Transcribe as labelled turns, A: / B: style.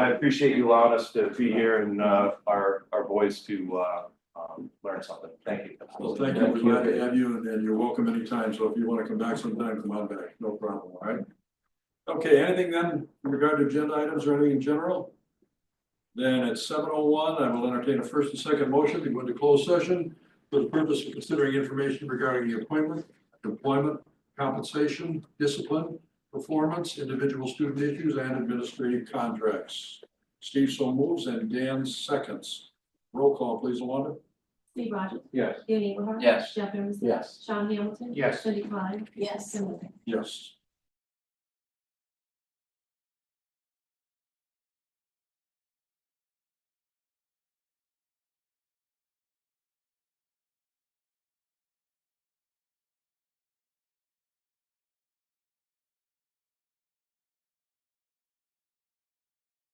A: I appreciate you allowing us to be here and, uh, our, our boys to, uh, um, learn something. Thank you.
B: Well, thank you, we're glad to have you, and- and you're welcome anytime, so if you wanna come back sometime, come on back, no problem, all right? Okay, anything then, in regard to agenda items or anything in general? Then at seven oh one, I will entertain a first and second motion to go into closed session for the purpose of considering information regarding the appointment, employment, compensation, discipline, performance, individual student issues, and administrative contracts. Steve so moves and Dan seconds. Roll call, please, Alonda.
C: Steve Rogers.
A: Yes.
C: Danny Eagleheart.
D: Yes.
C: Jeff Emerson.
A: Yes.
C: Sean Hamilton.
A: Yes.
C: Cindy Klein. Yes. Tim Luker.
B: Yes.